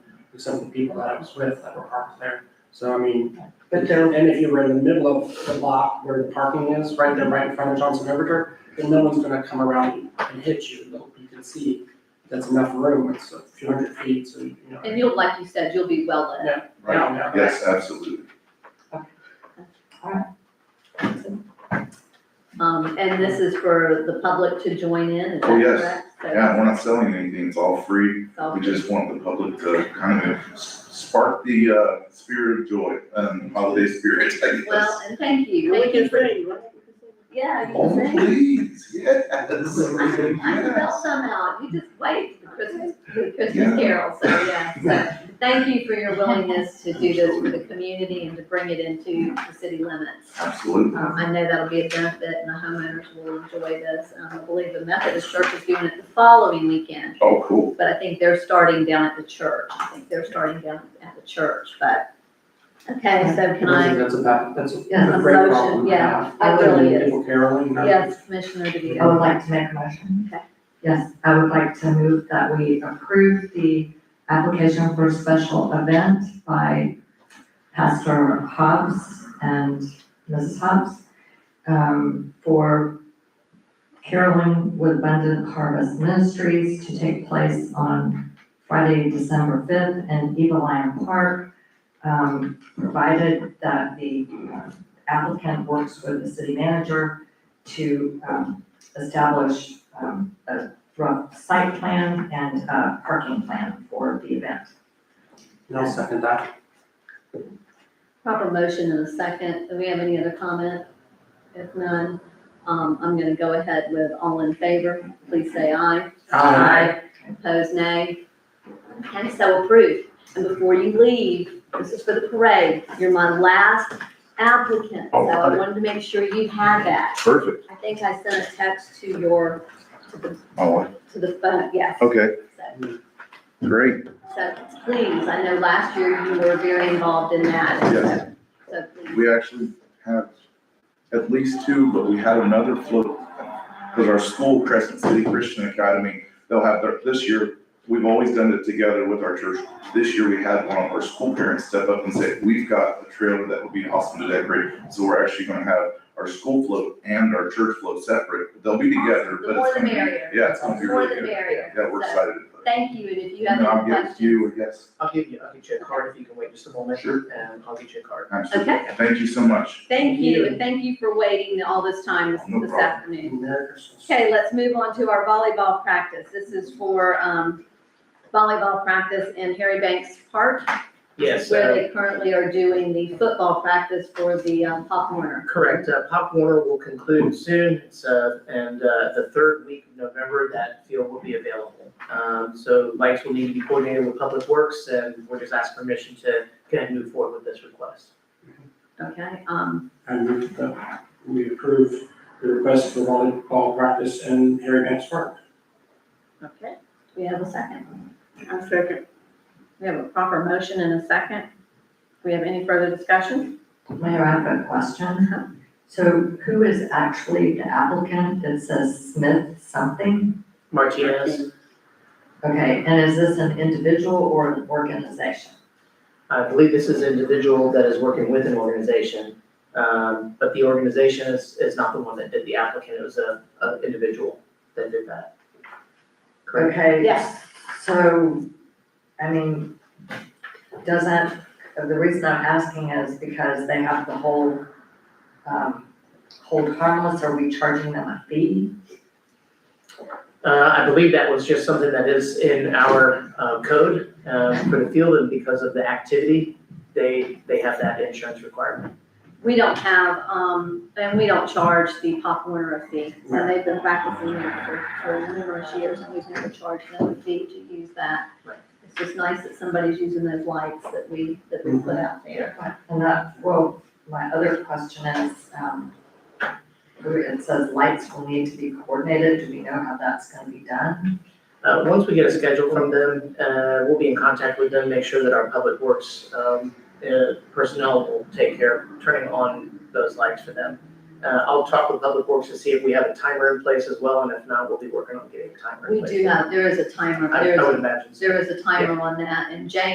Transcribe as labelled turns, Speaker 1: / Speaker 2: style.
Speaker 1: except the people that I was with that were parked there. So I mean,
Speaker 2: But there,
Speaker 1: and if you were in the middle of the block where the parking is, right there, right in front of Johnson Riverter, then no one's gonna come around and hit you, Though you can see that's enough room, it's a few hundred feet, so you know.
Speaker 3: And you'll, like you said, you'll be well lit.
Speaker 1: Right, now,
Speaker 4: Yes, uh, absolutely.
Speaker 3: Um, and this is for the public to join in, is that
Speaker 4: Oh, yes.
Speaker 3: correct? So
Speaker 4: Yeah, we're not selling anything, it's all free.
Speaker 3: it's all-
Speaker 4: We just want the public to kind of s- spark the uh, spirit of joy and holiday spirit, I guess.
Speaker 3: Well, and thank you,
Speaker 2: we
Speaker 3: thank you
Speaker 2: can
Speaker 3: for,
Speaker 2: bring, right?
Speaker 3: yeah, you
Speaker 4: Oh,
Speaker 3: can sing.
Speaker 4: please, yes.
Speaker 3: I
Speaker 4: Yes.
Speaker 3: felt somehow, you just wait for Christmas,
Speaker 4: Yeah.
Speaker 3: Christmas carol, so yeah, so thank you for your willingness to do this for the community and to bring it into the city limits.
Speaker 4: Absolutely.
Speaker 3: Um, I know that'll be a benefit and the homeowners will enjoy this. Um, I believe the Methodist Church is doing it the following weekend.
Speaker 4: Oh, cool.
Speaker 3: But I think they're starting down at the church. I think they're starting down at the church, but, okay, so can
Speaker 1: I think
Speaker 3: I,
Speaker 1: That's a bad, that's a
Speaker 3: Yeah,
Speaker 1: great
Speaker 3: emotion,
Speaker 1: problem to
Speaker 3: yeah,
Speaker 1: have.
Speaker 3: it really is.
Speaker 1: People caroling, not-
Speaker 3: yes, Commissioner
Speaker 5: I would
Speaker 3: DeVito?
Speaker 5: like to make a motion.
Speaker 3: Okay.
Speaker 5: Yes, I would like to move that we approve the application for special event by Pastor Hobbs and Mrs. Hobbs um, for Caroling with Abundant Harvest Ministries to take place on Friday, December fifth in Eagle Lion Park. um, provided that the uh, applicant works with the city manager to, um, establish um, a rough site plan and uh parking plan for the event.
Speaker 1: and I'll second that.
Speaker 3: Proper motion and a second. Do we have any other comment? If none, um, I'm gonna go ahead with all in favor. Please say aye. Opposed, nay. Okay, so approved. And before you leave, this is for the parade. You're my last applicant, so I wanted to make sure you had that.
Speaker 4: Perfect.
Speaker 3: I think I sent a text to your, to the,
Speaker 4: Oh,
Speaker 3: to the phone, yes.
Speaker 4: okay,
Speaker 3: So-
Speaker 4: great.
Speaker 3: So please, I know last year you were very involved in that. and so-
Speaker 4: Yes.
Speaker 3: So please,
Speaker 4: We actually have at least two, but we had another float. Because our school, Crescent City Christian Academy, they'll have their, this year, we've always done it together with our church. This year, we had one of our school parents step up and say, we've got a trailer that would be awesome to decorate. So we're actually gonna have our school float and our church float separate. They'll be together,
Speaker 3: The
Speaker 4: but
Speaker 3: more
Speaker 4: it's
Speaker 3: the
Speaker 4: gonna be,
Speaker 3: merrier.
Speaker 4: yeah, it's gonna be
Speaker 3: more
Speaker 4: really
Speaker 3: the
Speaker 4: good.
Speaker 3: merrier.
Speaker 4: Yeah, we're
Speaker 3: So
Speaker 4: excited. about it.
Speaker 3: Thank you, and if you have
Speaker 4: And I'll
Speaker 3: any
Speaker 4: give it to
Speaker 3: questions.
Speaker 4: you, yes.
Speaker 6: I'll give you, I'll get you a card if you can wait just a moment.
Speaker 4: Sure.
Speaker 6: And I'll get you a card.
Speaker 4: Absolutely.
Speaker 3: Okay.
Speaker 4: Thank you so much.
Speaker 3: Thank
Speaker 6: you.
Speaker 3: you, and thank you for waiting all this time this-
Speaker 4: No
Speaker 3: this
Speaker 4: problem.
Speaker 3: afternoon.
Speaker 1: Merry Christmas.
Speaker 3: Okay, let's move on to our volleyball practice. This is for um, volleyball practice in Harry Banks Park,
Speaker 6: Yes,
Speaker 3: where
Speaker 6: uh,
Speaker 3: they currently are doing the football practice for the um, Pop Warner.
Speaker 6: correct. Uh, Pop Warner will conclude soon. It's, uh, and, uh, the third week of November, that field will be available. Um, so lights will need to be coordinated with Public Works and we're just asking permission to kind of move forward with this request.
Speaker 3: Okay, um,
Speaker 1: I move that we approve the request for volleyball practice in Harry Banks Park.
Speaker 3: okay, we have a second.
Speaker 2: A second.
Speaker 3: We have a proper motion and a second. We have any further discussion?
Speaker 5: Mayor, I have a
Speaker 3: Uh-huh.
Speaker 5: question. So who is actually the applicant? It says Smith something?
Speaker 6: Martinez,
Speaker 5: Okay, and is this an individual or an organization?
Speaker 6: I believe this is an individual that is working with an organization. Um, but the organization is, is not the one that did the applicant. It was a, a individual that did that. Correct.
Speaker 5: Okay.
Speaker 3: Yes.
Speaker 5: So, I mean, doesn't, the reason I'm asking is because they have to hold, um, hold harmless, are we charging them a fee?
Speaker 6: Uh, I believe that was just something that is in our, uh, code, uh, for the field, and because of the activity, they, they have that insurance requirement.
Speaker 3: We don't have, um, and we don't charge the Pop Warner a fee. So they've been practicing there for, for numerous years and we've never charged them a fee to use that.
Speaker 6: Right.
Speaker 3: It's just nice that somebody's using those lights that we, that we put out there.
Speaker 5: And that, well, my other question is, um, it says lights will need to be coordinated, do we know how that's gonna be done?
Speaker 6: Uh, once we get a schedule from them, uh, we'll be in contact with them, make sure that our public works, um, uh, personnel will take care of turning on those lights for them. Uh, I'll talk with Public Works to see if we have a timer in place as well, and if not, we'll be working on getting a timer in
Speaker 3: We
Speaker 6: place.
Speaker 3: do have, there is a timer,
Speaker 6: I,
Speaker 3: there
Speaker 6: I
Speaker 3: is,
Speaker 6: would imagine so.
Speaker 3: there is a timer on that and Jane